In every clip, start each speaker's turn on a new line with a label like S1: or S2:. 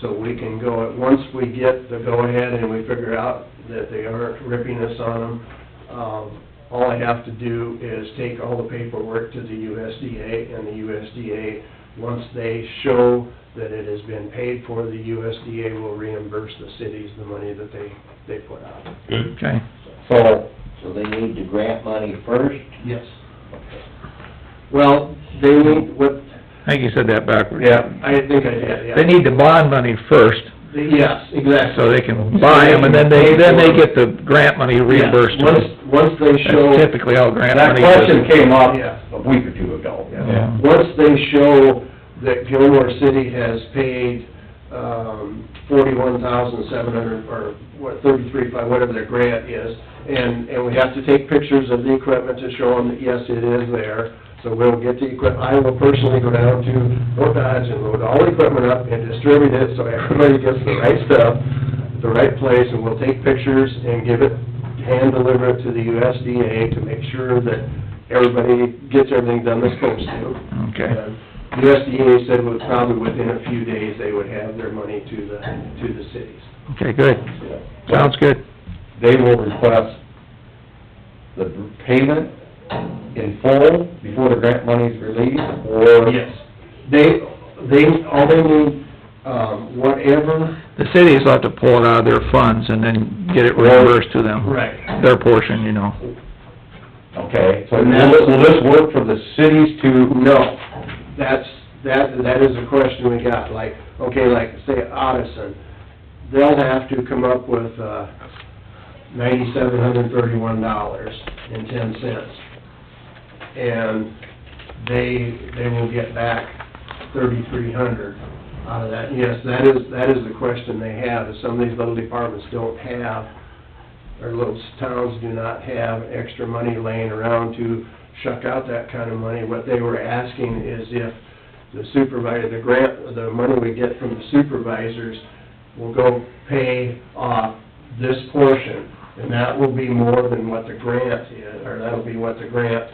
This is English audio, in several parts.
S1: so we can go, once we get the go-ahead and we figure out that they aren't ripping us on them, um, all I have to do is take all the paperwork to the USDA, and the USDA, once they show that it has been paid for, the USDA will reimburse the cities the money that they, they put out.
S2: Good.
S3: Okay,
S4: So, so they need the grant money first?
S1: Yes. Well, they need, what,
S3: I think you said that backwards.
S1: yeah, I think I did, yeah.
S3: They need the bond money first,
S1: Yes, exactly.
S3: so they can buy them, and then they, then they get the grant money reimbursed. to
S1: Once,
S3: them.
S1: once they show.
S3: That's typically how grant
S4: That
S3: money
S4: question
S3: is.
S4: came up
S1: Yeah.
S4: a week or two ago.
S3: Yeah.
S1: Once they show that Gilmore City has paid, um, forty-one thousand seven hundred, or what, thirty-three, by whatever their grant is, and, and we have to take pictures of the equipment to show them that, yes, it is there, so we'll get the equip, I will personally go down to Fort Dodge and load all the equipment up and distribute it, so everybody gets the right stuff, the right place, and we'll take pictures and give it, hand deliver it to the USDA to make sure that everybody gets everything done they're supposed to.
S3: Okay.
S1: And The USDA said was probably within a few days, they would have their money to the, to the cities.
S3: Okay, good, sounds good.
S4: They will request the payment in full before the grant money's released, or...
S1: Yes. They, they, all they need, um, whatever.
S3: The cities will have to pull it out of their funds and then get it reimbursed to them.
S1: Right.
S3: Their portion, you know.
S4: Okay, so
S1: And that's-
S4: will will this work for the cities to...
S1: No, that's, that, that is a question we got, like, okay, like, say Odison, they'll have to come up with, uh, ninety-seven hundred thirty-one dollars and ten cents. And they, they will get back thirty-three hundred out of that. Yes, that is, that is the question they have, is some of these little departments don't have, or little towns do not have extra money laying around to shuck out that kind of money. What they were asking is if the supervisor, the grant, the money we get from the supervisors will go pay off this portion, and that will be more than what the grant is, or that'll be what the grant,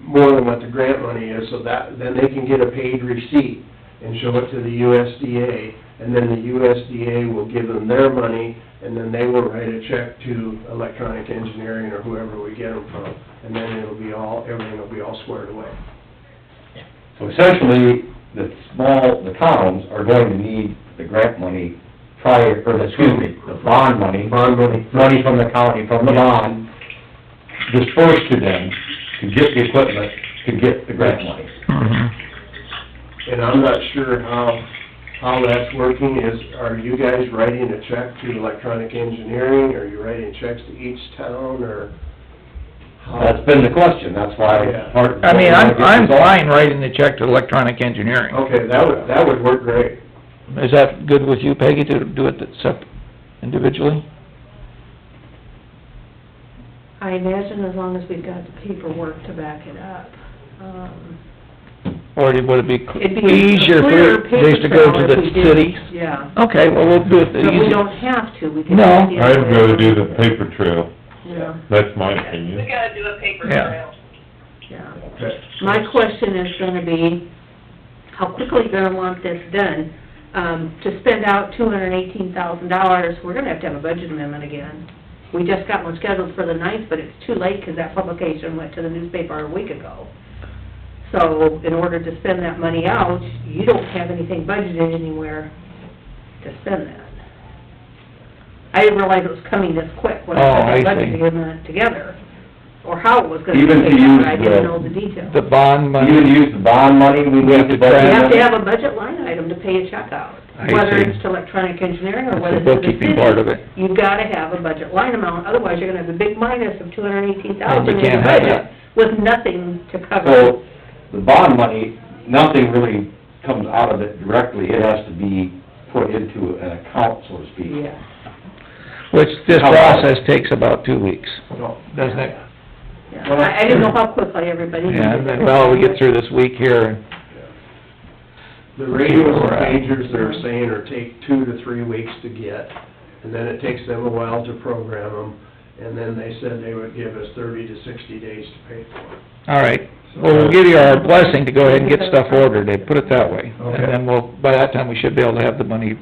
S1: more than what the grant money is, so that, then they can get a paid receipt and show it to the USDA, and then the USDA will give them their money, and then they will write a check to electronic engineering or whoever we get them from, and then it'll be all, everything will be all squared away.
S4: So essentially, the small, the towns are going to need the grant money prior, or the- excuse me, the bond money.
S1: Bond money.
S4: Money from the county, from the bond, dispersed to them to get the equipment, to get the grant money.
S3: Mhm.
S1: And I'm not sure how, how that's working, is, are you guys writing a check to electronic engineering, are you writing checks to each town, or? how-
S4: That's been the question, that's why
S1: Yeah.
S4: part of...
S3: I mean, I'm, I'm fine writing the check to electronic engineering.
S1: Okay, that would, that would work great.
S3: Is that good with you, Peggy, to do it sep- individually?
S5: I imagine as long as we've got the paperwork to back it up. um,
S3: Or would it be
S5: It'd be a
S3: easier
S5: clearer
S3: for
S5: paper
S3: these to go
S5: trail
S3: to
S5: if
S3: the
S5: we did-
S3: cities?
S5: Yeah,
S3: Okay, well, we'll do it the
S5: but we
S3: easy...
S5: don't have to, we can.
S3: No.
S5: do it the other
S2: I'd
S5: way
S2: rather
S5: around.
S2: do the paper trail,
S5: Yeah,
S2: that's my
S6: We
S2: opinion.
S6: gotta do a paper
S3: Yeah.
S6: trail.
S5: yeah.
S1: Okay.
S5: My question is gonna be, how quickly you're gonna want this done? Um, to spend out two hundred and eighteen thousand dollars, we're gonna have to have a budget amendment again. We just got one scheduled for the ninth, but it's too late, 'cause that publication went to the newspaper a week ago. So, in order to spend that money out, you don't have anything budgeted anywhere to spend that. I didn't realize it was coming this quick when
S3: Oh,
S5: I
S3: I
S5: put the budget
S3: see.
S5: amendment together, or how it was gonna be
S4: Even to
S5: paid out,
S4: use
S5: I didn't
S4: the-
S5: know the details.
S3: The bond money...
S4: Even use the bond money, we
S3: We have
S4: need
S3: to
S4: the budget
S3: track-
S5: You have to
S4: money.
S5: have a budget line item to pay a check out,
S3: I
S5: whether
S3: see.
S5: it's to electronic engineering
S3: That's
S5: or
S3: the
S5: whether it's to the city.
S3: bookkeeping part of it.
S5: You've gotta have a budget line amount, otherwise you're gonna have a big minus of two hundred and eighteen thousand
S3: And
S5: in
S3: you
S5: your
S3: can't have
S5: budget
S3: that.
S5: with nothing to cover.
S4: So, the bond money, nothing really comes out of it directly, it has to be put into an account, so to speak.
S5: Yeah,
S3: Which this
S4: How-
S3: process takes about two weeks,
S1: No.
S3: doesn't it?
S5: yeah. I, I didn't know how quickly everybody
S3: Yeah,
S5: needed it.
S3: well, we get through this week here,
S1: The radios and pagers they're saying are take two to three weeks to get, and then it takes them a while to program them, and then they said they would give us thirty to sixty days to pay for it.
S3: all right. Well,
S1: Uh,
S3: we'll give you our blessing to go ahead and get stuff ordered, they put it that way. And
S1: Okay.
S3: then we'll, by that time, we should be able to have the money